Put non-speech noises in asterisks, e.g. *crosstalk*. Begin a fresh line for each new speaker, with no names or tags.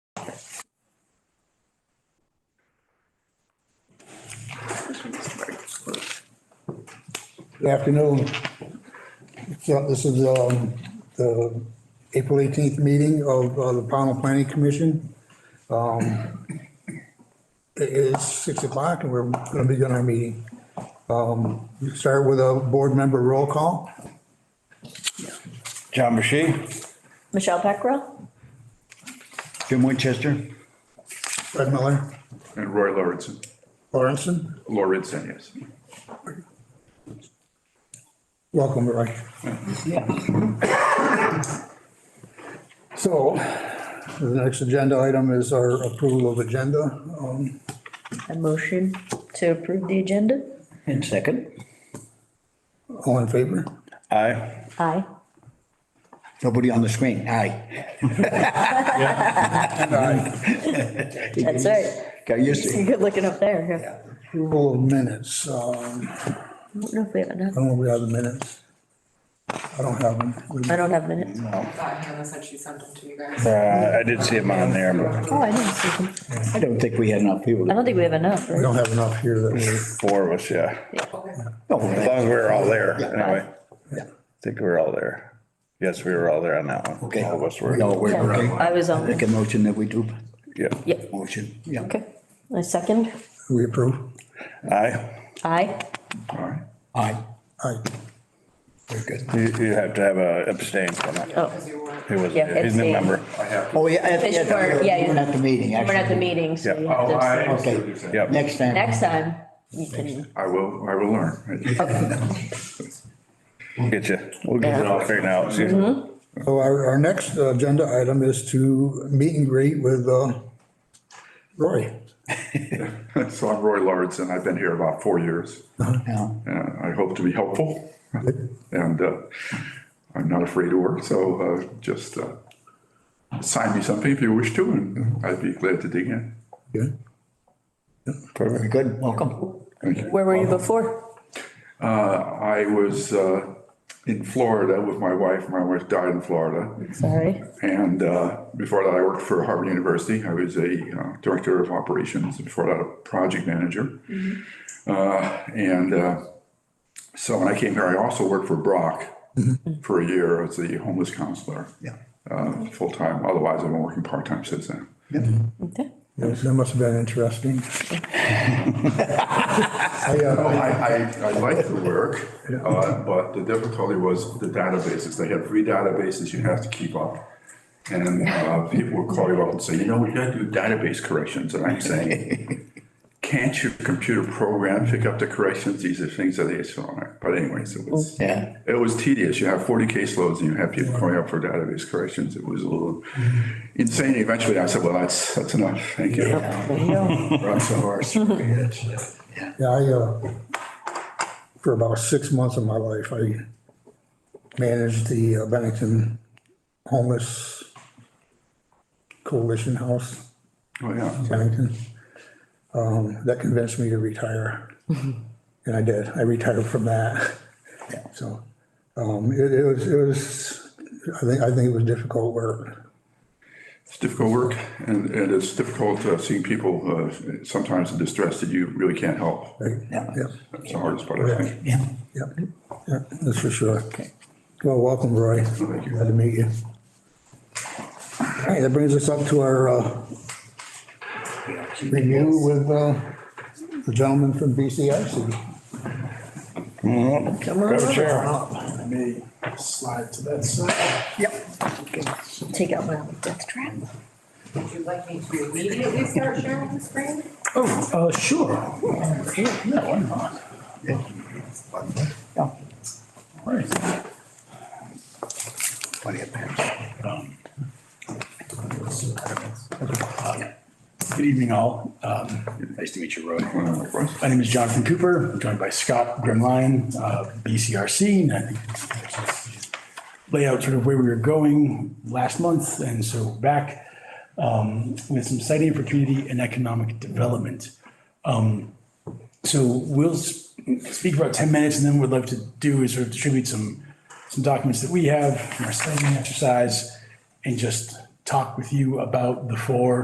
Good afternoon. So this is um, the April 18th meeting of uh, the Pownell Planning Commission. Um, It is 6 o'clock and we're going to begin our meeting. Um, we Start with a board member roll call.
John Bashy,
Michelle Peckrell?
Jim Winchester,
Fred Miller,
And Roy Lauritsen,
Lawrenson,
Lauritsen, yes.
welcome, Roy. So the next agenda item is our approval of agenda. Um,
A motion to approve the agenda?
and second.
All in favor?
Aye.
Aye.
Nobody on the screen, aye.
That's right.
Got used to it.
You're good looking up there.
Approval of minutes. Um,
I don't know if we have enough.
I don't know if we have the minutes. I don't have them. We-
I don't have minutes.
thought Hannah said she sent them to you guys.
Uh, I did see him on there, but
Oh, I didn't see them.
I don't think we had enough people.
I don't think we have enough,
We
right?
don't have enough here that we,
Four of us, yeah.
No,
As
but-
long as we were all there, anyway.
Yeah.
I think we were all there. Yes, we were all there on that one.
Okay.
All of us were.
No, we're,
Yeah, I
okay.
was on.
Make a motion that we do,
Yeah.
Yeah,
motion, yeah.
okay. A second?
we approve.
Aye.
Aye.
All right.
Aye,
Aye.
very good.
You, you have to have a abstain from it.
Oh,
Because you were.
He was,
Yeah,
he's a
abstain.
member.
I have, to-
Oh, yeah, at,
Fish for- yeah,
at,
you-
at the meeting,
we're at the
actually.
meeting, so you
Yeah.
have
oh, I,
to.
understand what you're saying.
Yep.
Next time.
Next time, you can,
I will, I will learn.
We'll get you, we'll get it all figured out. See-
So our, our next agenda item is to meet and greet with, uh, Roy.
*laughs* So I'm Roy Lauritsen, I've been here about four years.
Yeah.
and I hope to be helpful. And uh, I'm not afraid to work, so uh, just uh, sign me something if you wish to, and I'd be glad to dig in.
Good.
Very good, welcome.
where were you before?
I was uh, in Florida with my wife, my wife died in Florida.
Sorry.
And uh, before that, I worked for Harvard University. I was a uh, director of operations, and before that, a project manager. Uh, And uh, so when I came here, I also worked for Brock for a year as the homeless counselor.
Yeah.
uh, Full-time, otherwise I've been working part-time since then.
Okay.
That must have been *laughs* interesting. I, uh,
Oh, I, I, I liked the work, uh, but the difficulty was the databases. They had three databases you have to keep up. And uh, people would call you up and say, you know, we gotta do database corrections. And I'm saying, can't your computer program pick up the corrections? These are things that they saw. But anyways, it was,
Yeah.
it was tedious. You have 40 caseloads and you have people calling up for database corrections. It was a little insane. Eventually I said, well, that's, that's enough. Thank you. *laughs*
Rush horse.
Oh,
Yeah.
Yeah, I, uh, for about six months of my life, I managed the uh, Bennington Homeless Coalition House.
Oh, yeah.
Bennington. Um, that convinced me to retire. And I did, I retired from that. So, um, it, it was, it was, I think, I think it was difficult work.
It's difficult work, and, and it's difficult uh, seeing people uh, sometimes in distress that you really can't help.
Right?
Yeah.
Yep,
That's the hardest part, I think.
Yeah.
yep, yep, that's for sure. Well, welcome, Roy.
Thank you.
Glad to meet you. All right, that brings us up to our, uh, review with, uh, the gentleman from BCIC.
Come on.
Grab a chair.
Let me slide to that side.
Take out my death trap.
Would you like me to immediately start sharing the screen?
Oh, uh, sure. Yeah, yeah, why not?
Yeah.
Right.
Plenty of pants.
Um, Good evening, all. Um, Nice to meet you, Roy.
Uh, likewise.
My name is Jonathan Cooper, I'm joined by Scott Grimline, uh, BCRC. and I think Lay out sort of where we were going last month, and so we're back um, with some citing for community and economic development. Um, So we'll s- speak for about 10 minutes, and then what we'd love to do is sort of distribute some, some documents that we have from our citing exercise and just talk with you about the four